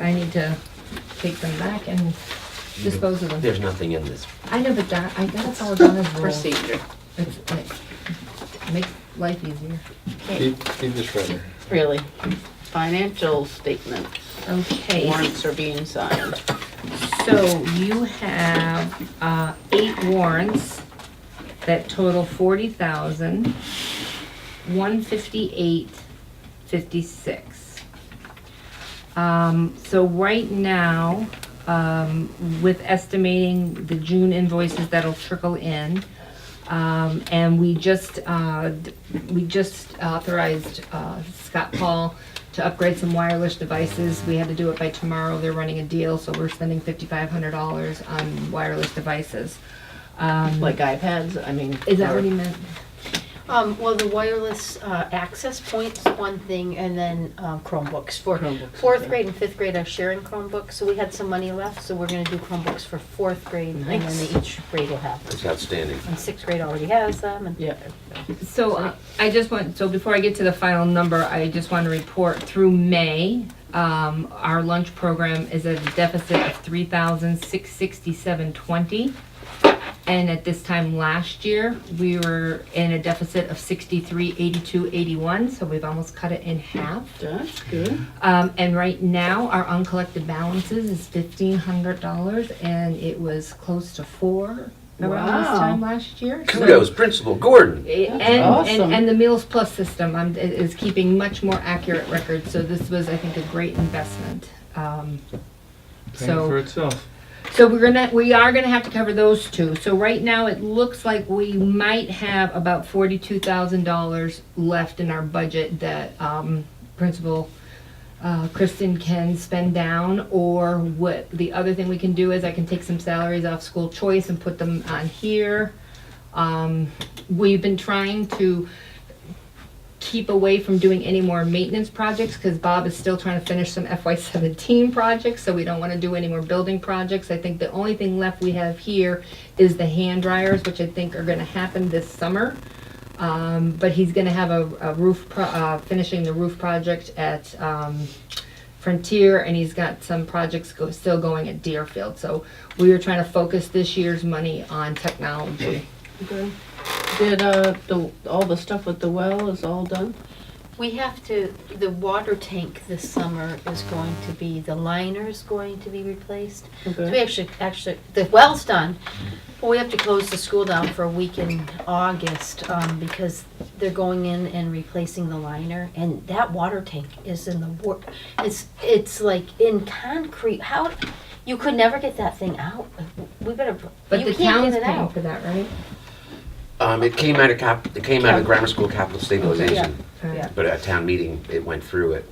I need to take them back and dispose of them. There's nothing in this. I know, but Don, I gotta follow Donna's rule. procedure. It's, it makes life easier. Okay, Keep, keep this right here. really. Financial statements, Okay, warrants are being signed. so you have, uh, eight warrants that total forty thousand, one fifty-eight, fifty-six. Um, so right now, um, with estimating the June invoices that'll trickle in, Um, and we just, uh, d- we just authorized, uh, Scott Paul to upgrade some wireless devices. We had to do it by tomorrow. They're running a deal, so we're spending fifty-five hundred dollars on wireless devices. Um, Like iPads, I mean. is that or- what he meant? Um, well, the wireless, uh, access points, one thing, and then, um, Chromebooks for Chromebooks, fourth okay. grade and fifth grade are sharing Chromebooks, so we had some money left, so we're gonna do Chromebooks for fourth grade, and then Nice. they each grade will have them. It's outstanding. And sixth grade already has them, and. Yeah, So uh, I just want, so before I get to the final number, I just want to report through May, um, our lunch program is at a deficit of three thousand six sixty-seven twenty. And at this time last year, we were in a deficit of sixty-three eighty-two eighty-one, so we've almost cut it in half. that's good. Um, and right now, our uncollected balances is fifteen hundred dollars and it was close to four around this Wow. time last year. So- Kudos, Principal Gordon. and, awesome. and and the Meals Plus system um, i- is keeping much more accurate records. So this was, I think, a great investment. Um, Paying So- for itself. so we're gonna, we are gonna have to cover those two. So right now, it looks like we might have about forty-two thousand dollars left in our budget that um, Principal uh, Kristen can spend down. Or what, the other thing we can do is I can take some salaries off school choice and put them on here. Um, We've been trying to keep away from doing any more maintenance projects because Bob is still trying to finish some FY17 projects, so we don't want to do any more building projects. I think the only thing left we have here is the hand dryers, which I think are going to happen this summer. Um, but he's going to have a, a roof, pro- uh, finishing the roof project at um, Frontier, and he's got some projects go, still going at Deerfield. So we are trying to focus this year's money on technology. Good. Did, uh, the, all the stuff with the well is all done? We have to, the water tank this summer is going to be, the liner's going to be replaced. So we Okay. actually, actually, the well's done, but we have to close the school down for a week in August, um, because they're going in and replacing the liner, and that water tank is in the war, it's, it's like in concrete, how, you could never get that thing out, we better, But you the town's can't get it paying out. for that, right? Um, it came out of cap, it came out of grammar school capital stabilization, Yeah. but at town meeting, it went through it.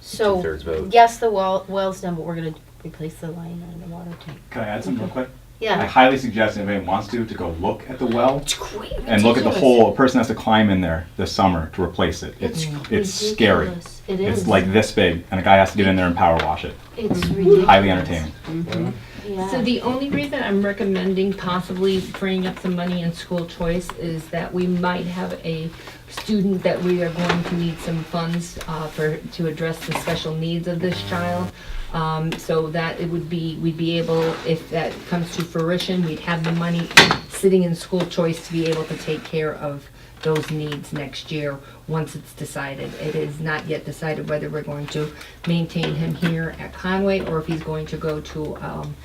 So, Two-thirds vote. yes, the well, well's done, but we're gonna replace the liner and the water tank, Can I add something real quick? I Mm-hmm. yeah. highly suggest if anyone wants to, to go look at the well It's crazy. and look at the hole. A person has to climb in there this summer to replace it. It's it's scary. Mm-hmm. ridiculous. It It's is. like this big, and a guy has to get in there and power wash it. It's ridiculous. Highly entertaining. Yeah. So the only reason I'm recommending possibly freeing up some money in school choice is that we might have a student that we are going to need some funds uh, for, to address the special needs of this child. Um, So that it would be, we'd be able, if that comes to fruition, we'd have the money sitting in school choice to be able to take care of those needs next year, once it's decided. It is not yet decided whether we're going to maintain him here at Conway or if he's going to go to um,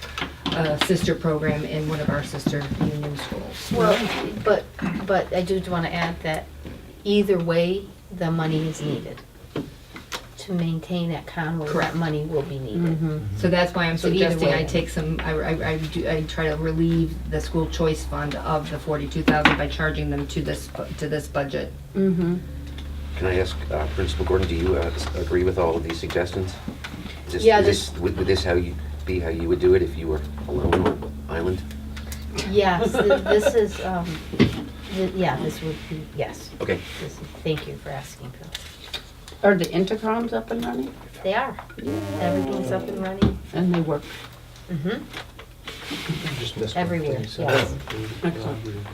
a sister program in one of our sister union schools. Well, but, but I do want to add that either way, the money is needed. To maintain that Conway, Correct. that money will be needed. Mm-hmm. So that's why I'm So either suggesting I way. take some, I, I, I do- I try to relieve the school choice fund of the forty-two thousand by charging them to this, bu- to this budget. Mm-hmm. Can I ask, uh, Principal Gordon, do you, uh, s- agree with all of these suggestions? Is this- Yeah, is this- Would would this how you, be how you would do it if you were alone on an island? Yes, th- this is, um, th- yeah, this would be, yes. Okay. This is- Thank you for asking, Phil. Are the intercoms up and running? They are. Everything's up and running. And they work? Mm-hmm. Just missed one. Everywhere, yes. Excellent.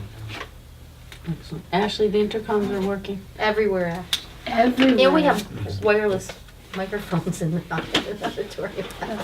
Excellent. Ashley, the intercoms are working? Everywhere. Everywhere. And we have wireless microphones in the auditorium.